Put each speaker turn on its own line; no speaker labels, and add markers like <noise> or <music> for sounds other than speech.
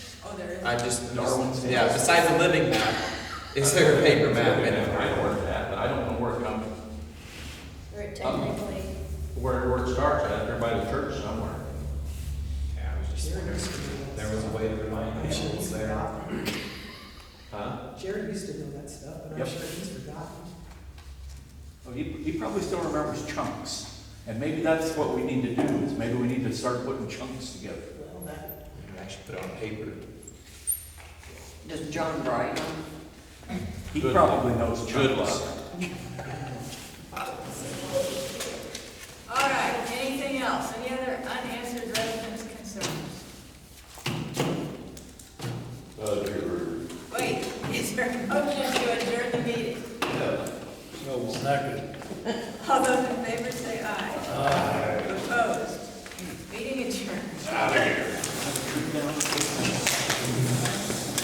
Oh, there is.
I just,
Darwin's
yeah,
Tales.
besides the living map, is there a paper map in
I
it?
know where it's at, but I don't know where it comes,
Or
Uh-huh.
technically,
where, where it starts at, or by the church somewhere.
Yeah, I was just wondering if there was a way to remind
I'm sure
people
he's
there.
forgotten.
Huh?
Jared used to know that stuff, but I'm
Yep.
sure he's forgotten.
Well, he, he probably still remembers chunks, and maybe that's what we need to do, is maybe we need to start putting chunks together.
Well, that,
Actually put it on paper.
Does John write
He
Good.
probably knows chunks.
Good luck.
All right, anything else? Any other unanswered residents' concerns?
Uh, your,
Wait, is there a motion to adjourn the meeting?
yeah,
<laughs> All those in favor say aye. Aye.